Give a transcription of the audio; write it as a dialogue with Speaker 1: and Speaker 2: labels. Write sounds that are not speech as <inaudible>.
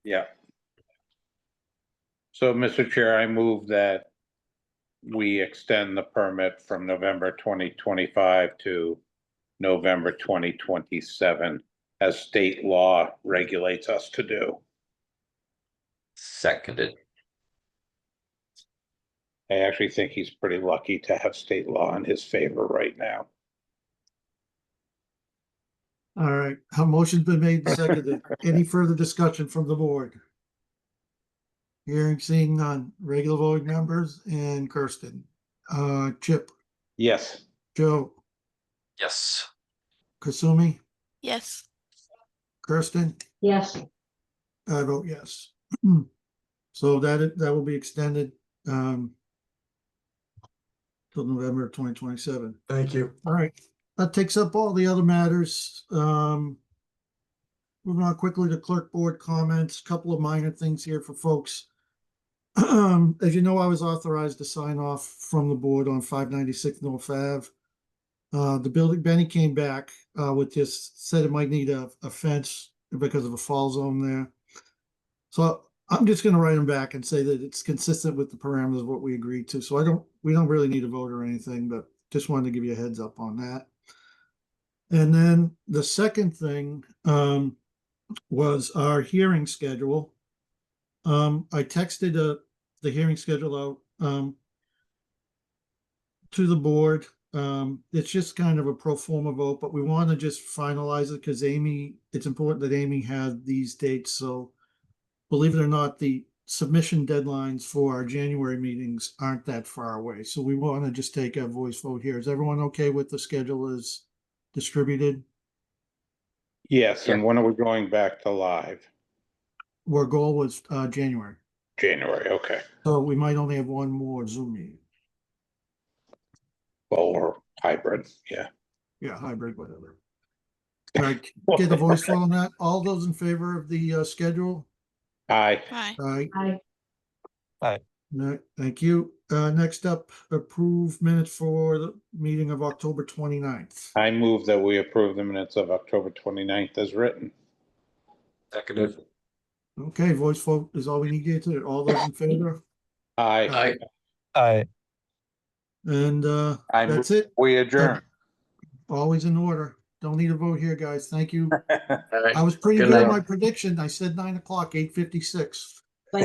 Speaker 1: Yeah. So, Mr. Chair, I move that we extend the permit from November twenty twenty-five to November twenty twenty-seven, as state law regulates us to do.
Speaker 2: Seconded.
Speaker 1: I actually think he's pretty lucky to have state law in his favor right now.
Speaker 3: All right, a motion's been made, and seconded. Any further discussion from the board? Hearing, seeing none. Regular voting members and Kirsten. Uh, Chip,
Speaker 1: Yes,
Speaker 3: Joe,
Speaker 2: Yes.
Speaker 3: Kasumi,
Speaker 4: Yes.
Speaker 3: Kirsten,
Speaker 5: Yes,
Speaker 3: I vote yes. <clears throat> So that, that will be extended, um, till November twenty twenty-seven.
Speaker 6: Thank you.
Speaker 3: All right, that takes up all the other matters. Um. Moving on quickly to clerk board comments, couple of minor things here for folks. Um, as you know, I was authorized to sign off from the board on five ninety-six North Ave. Uh, the building, Benny came back, uh, with this, said it might need a, a fence because of a fall zone there. So I'm just gonna write him back and say that it's consistent with the parameters of what we agreed to, so I don't, we don't really need a vote or anything, but just wanted to give you a heads up on that. And then the second thing, um, was our hearing schedule. Um, I texted, uh, the hearing schedule out, um, to the board, um, it's just kind of a pro forma vote, but we want to just finalize it because Amy, it's important that Amy had these dates, so believe it or not, the submission deadlines for our January meetings aren't that far away, so we want to just take a voice vote here. Is everyone okay with the schedule as distributed?
Speaker 1: yes, and when are we going back to live?
Speaker 3: Our goal was, uh, January,
Speaker 1: January, okay.
Speaker 3: so we might only have one more Zoom meeting.
Speaker 1: Well, or hybrid, yeah.
Speaker 3: Yeah, hybrid, whatever. All right, get a voice vote on that. All those in favor of the, uh, schedule?
Speaker 1: Aye,
Speaker 4: Hi.
Speaker 3: All right,
Speaker 5: I,
Speaker 3: No, thank you. Uh, next up, approve minutes for the meeting of October 29th.
Speaker 1: I move that we approve the minutes of October 29th as written.
Speaker 2: Seconded.
Speaker 3: Okay, voice vote is all we need here today. All those in favor?
Speaker 1: Aye,
Speaker 2: Aye.
Speaker 7: Aye.
Speaker 3: And, uh,
Speaker 1: I move,
Speaker 3: that's it.
Speaker 1: we adjourn.
Speaker 3: Always in order. Don't need a vote here, guys. Thank you.
Speaker 2: Aye.
Speaker 3: I was pretty
Speaker 2: Good
Speaker 3: good at
Speaker 2: night.
Speaker 3: my prediction. I said nine o'clock, eight fifty-six.